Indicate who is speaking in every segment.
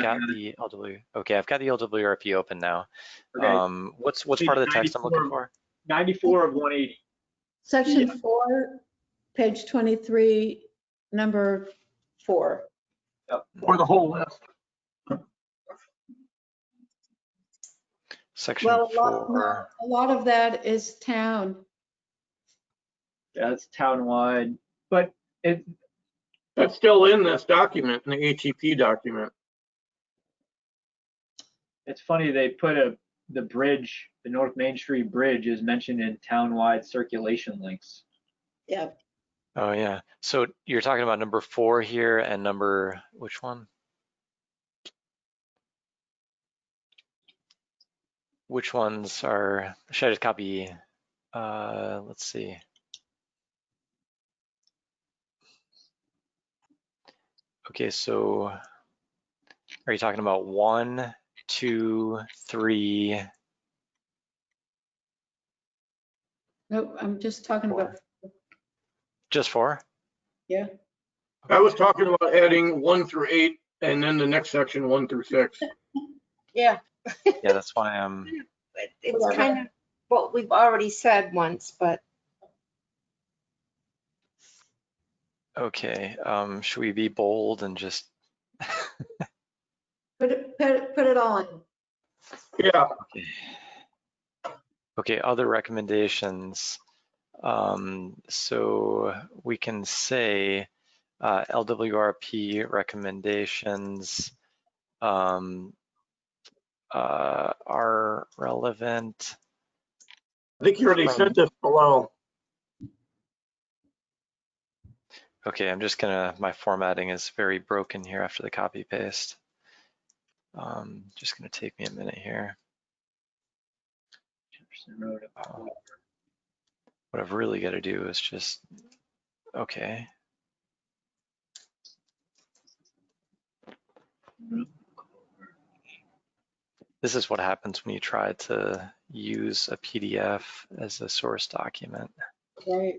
Speaker 1: got the LW, okay, I've got the LWRP open now.
Speaker 2: Okay,
Speaker 1: Um, what's, what's
Speaker 2: Page
Speaker 1: part of the text I'm looking
Speaker 2: 94.
Speaker 1: for?
Speaker 2: 94 of 180.
Speaker 3: Section four, page 23, number four.
Speaker 4: Or the whole list.
Speaker 1: Section
Speaker 3: Well, a lot,
Speaker 1: four.
Speaker 3: no, a lot of that is town.
Speaker 2: That's townwide.
Speaker 4: But it,
Speaker 5: That's still in this document, in the ATP document.
Speaker 2: It's funny, they put a, the bridge, the North Main Street Bridge is mentioned in townwide circulation links.
Speaker 3: Yeah.
Speaker 1: Oh, yeah. So you're talking about number four here and number, which one? Which ones are, should I just copy? Uh, let's see. Okay, so are you talking about one, two, three?
Speaker 3: No, I'm just talking about,
Speaker 1: Just four?
Speaker 3: yeah.
Speaker 5: I was talking about adding one through eight and then the next section, one through six.
Speaker 6: Yeah,
Speaker 1: Yeah, that's why I'm,
Speaker 6: but it's
Speaker 3: Whatever.
Speaker 6: kind of what we've already said once, but
Speaker 1: okay, um, should we be bold and just
Speaker 3: Put it, put it, put it all in.
Speaker 5: Yeah,
Speaker 1: Okay, other recommendations. Um, so we can say uh, LWRP recommendations um, uh, are relevant.
Speaker 5: I think you already sent this below.
Speaker 1: Okay, I'm just gonna, my formatting is very broken here after the copy paste. Um, just gonna take me a minute here.
Speaker 2: Jefferson Road.
Speaker 1: What I've really got to do is just, okay. This is what happens when you try to use a PDF as a source document.
Speaker 3: Right.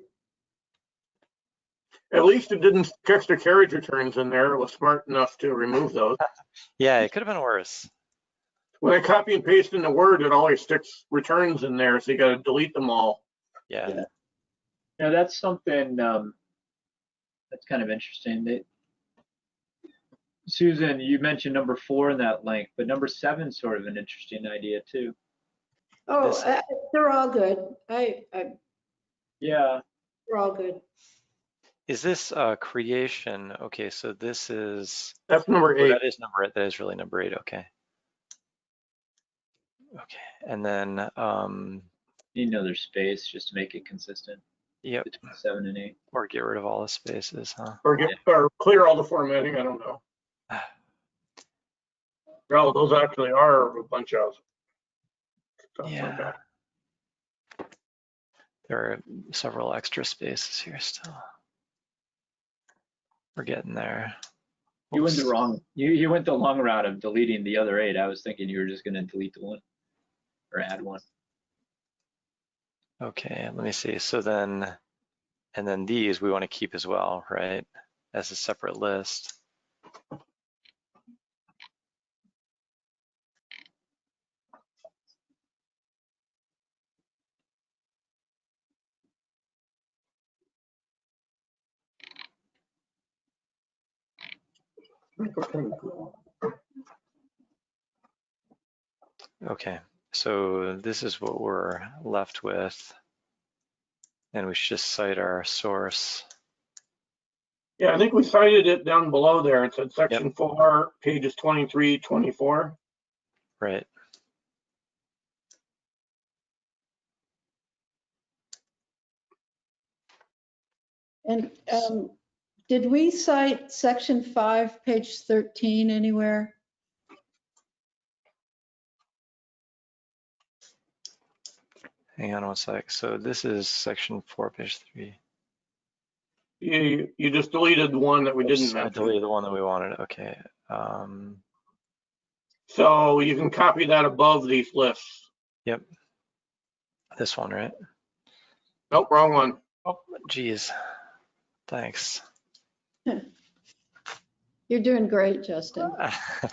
Speaker 5: At least it didn't catch the carriage returns in there. It was smart enough to remove those.
Speaker 1: Yeah, it could have been worse.
Speaker 5: When I copy and paste in the Word, it always sticks returns in there, so you gotta delete them all.
Speaker 1: Yeah.
Speaker 2: Yeah. Now, that's something, um, that's kind of interesting that Susan, you mentioned number four in that link, but number seven's sort of an interesting idea too.
Speaker 3: Oh,
Speaker 1: This-
Speaker 3: uh, they're all good. I, I,
Speaker 2: Yeah,
Speaker 3: they're all good.
Speaker 1: Is this uh, creation? Okay, so this is,
Speaker 5: That's number
Speaker 1: oh,
Speaker 5: eight.
Speaker 1: that is number, eight. that is really number eight, okay. Okay, and then, um,
Speaker 2: need another space just to make it consistent
Speaker 1: yep,
Speaker 2: between seven and eight.
Speaker 1: or get rid of all the spaces, huh?
Speaker 5: Or get, or clear all the formatting, I don't know. Well, those actually are a bunch of. stuff like
Speaker 1: Yeah.
Speaker 5: that.
Speaker 1: There are several extra spaces here still. We're getting there.
Speaker 2: You went
Speaker 1: Oops.
Speaker 2: the wrong, you, you went the long route of deleting the other eight. I was thinking you were just gonna delete the one or add one.
Speaker 1: Okay, let me see. So then, and then these we want to keep as well, right? As a separate list. Okay, so this is what we're left with. And we should just cite our source.
Speaker 5: Yeah, I think we cited it down below there. It said section four, pages 23, 24.
Speaker 1: Right.
Speaker 3: And, um, did we cite section five, page 13 anywhere?
Speaker 1: Hang on one sec. So this is section four, page three.
Speaker 5: You, you just deleted one that we didn't
Speaker 1: Oops, I
Speaker 5: mention.
Speaker 1: deleted the one that we wanted. Okay. Um,
Speaker 5: So you can copy that above these lists.
Speaker 1: this one, right?
Speaker 5: Nope, wrong one.
Speaker 1: Oh, geez. Thanks.
Speaker 3: You're doing great, Justin.
Speaker 1: I